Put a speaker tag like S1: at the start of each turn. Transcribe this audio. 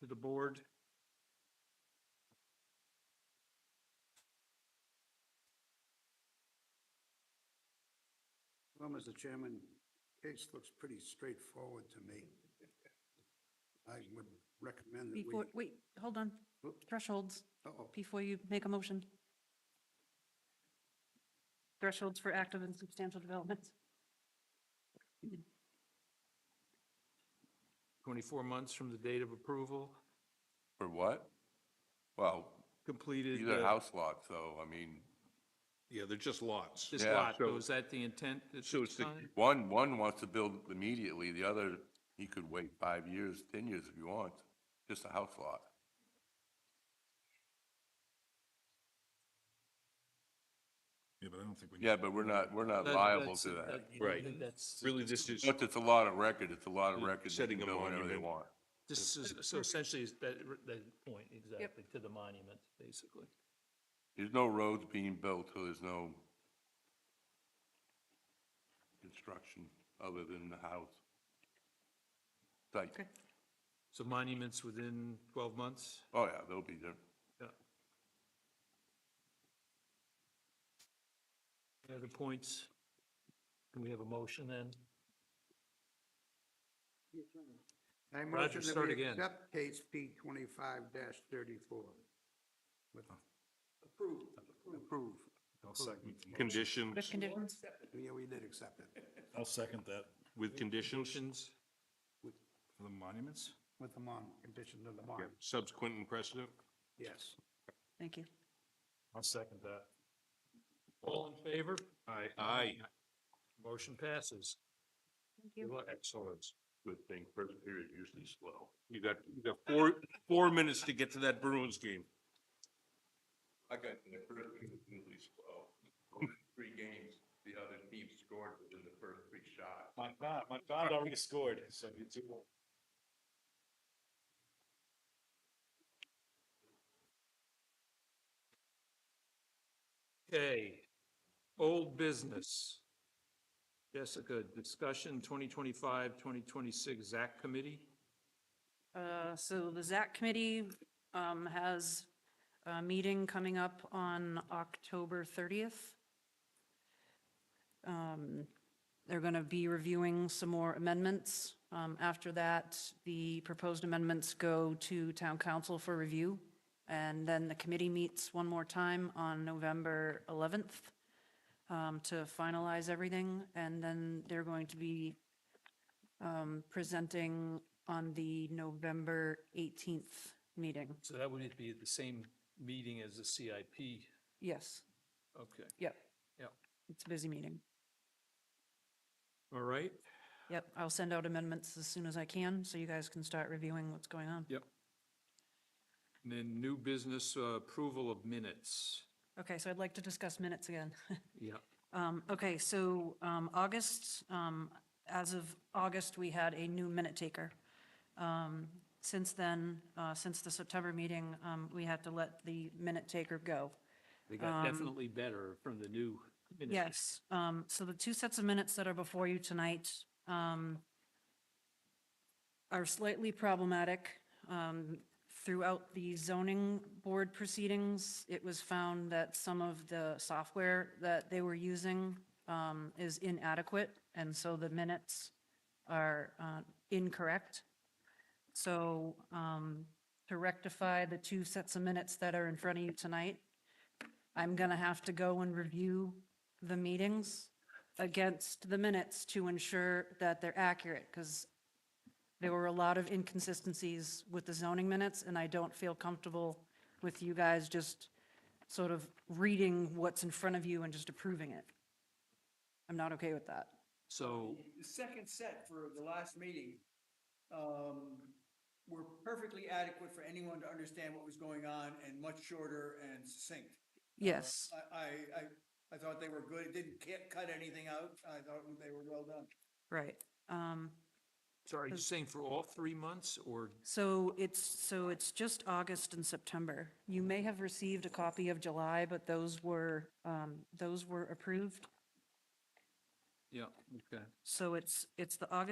S1: to the board?
S2: Well, Mr. Chairman, case looks pretty straightforward to me. I would recommend that we.
S3: Before, wait, hold on,
S2: Oops.
S3: thresholds,
S2: Uh-oh.
S3: before you make a motion. Thresholds for active and substantial developments.
S1: 24 months from the date of approval,
S4: For what? Well,
S1: completed.
S4: these are
S1: uh,
S4: house lots, so, I mean,
S5: Yeah, they're just lots.
S1: This
S4: Yeah.
S1: lot, so
S5: So-
S1: is that the intent? at
S5: So
S1: this
S5: it's the-
S1: time?
S4: one, one wants to build immediately, the other, he could wait five years, 10 years if he wants, just a house lot.
S5: Yeah, but I don't think we.
S4: Yeah, but we're not, we're not
S1: That-
S4: uh, liable
S1: that's-
S4: to that.
S1: you know,
S5: Right.
S1: That's,
S5: Really, this is,
S4: But it's a lot of record, it's a lot of record. They
S5: Setting
S4: can
S5: a
S4: build whatever they
S5: monument.
S4: want.
S1: this is, so essentially is that, that point, exactly, to the monument, basically.
S4: There's no roads being built, so there's no construction other than the house. Site.
S3: Okay.
S1: So monuments within 12 months?
S4: Oh, yeah, they'll be there.
S1: Yeah. Any other points? Can we have a motion then?
S2: I
S1: Roger,
S2: motion that
S1: start
S2: we
S1: again.
S2: accept case P twenty-five thirty-four. Approved. Oh. Approved.
S5: condition,
S3: With conditions,
S2: Yeah, we did accept it
S6: I'll second that.
S5: with conditions,
S1: Conditions?
S6: The monuments?
S2: with the mon, condition of the mon,
S5: subsequent and precedent.
S2: yes.
S3: thank you.
S6: I'll second that.
S1: All in favor?
S5: Aye. Aye.
S1: Motion passes.
S3: Thank you.
S5: Excellent.
S4: Good thing, first period usually slow.
S5: You got, you got four, four minutes to get to that Bruins game.
S4: I got in the first period was usually slow. Three games, the other team scored within the first three shots.
S6: My God, my God already scored, so you two.
S1: Okay, old business. Jessica, discussion 2025, 2026 ZAC committee?
S3: Uh, So the ZAC committee um, has a meeting coming up on October 30th. Um, They're going to be reviewing some more amendments. Um, After that, the proposed amendments go to town council for review. And then the committee meets one more time on November 11th um, to finalize everything. And then they're going to be um, presenting on the November 18th meeting.
S1: So that would be at the same meeting as the CIP.
S3: Yes,
S1: Okay,
S3: yep.
S1: Yep.
S3: It's a busy meeting.
S1: all right.
S3: Yep, I'll send out amendments as soon as I can, so you guys can start reviewing what's going on.
S1: Yep. And then new business uh, approval of minutes.
S3: Okay, so I'd like to discuss minutes again.
S1: Yeah.
S3: Um, Okay, so um, August, um, as of August, we had a new minute taker. Um, Since then, uh, since the September meeting, um, we had to let the minute taker go.
S1: They got definitely better from the new minutes.
S3: Yes, um, so the two sets of minutes that are before you tonight, um, are slightly problematic. Um, throughout the zoning board proceedings, it was found that some of the software that they were using, um, is inadequate, and so the minutes are, uh, incorrect. So, um, to rectify the two sets of minutes that are in front of you tonight, I'm going to have to go and review the meetings against the minutes to ensure that they're accurate, because there were a lot of inconsistencies with the zoning minutes, and I don't feel comfortable with you guys just sort of reading what's in front of you and just approving it. I'm not okay with that.
S1: So,
S7: The second set for the last meeting, um, were perfectly adequate for anyone to understand what was going on and much shorter and succinct.
S3: Yes,
S7: I, I, I, I thought they were good. It didn't ca- cut anything out. I thought they were well done.
S3: right. Um,
S1: sorry, you saying for all three months or
S3: So it's, so it's just August and September. You may have received a copy of July, but those were, um, those were approved.
S1: Yeah, okay.
S3: So it's, it's the August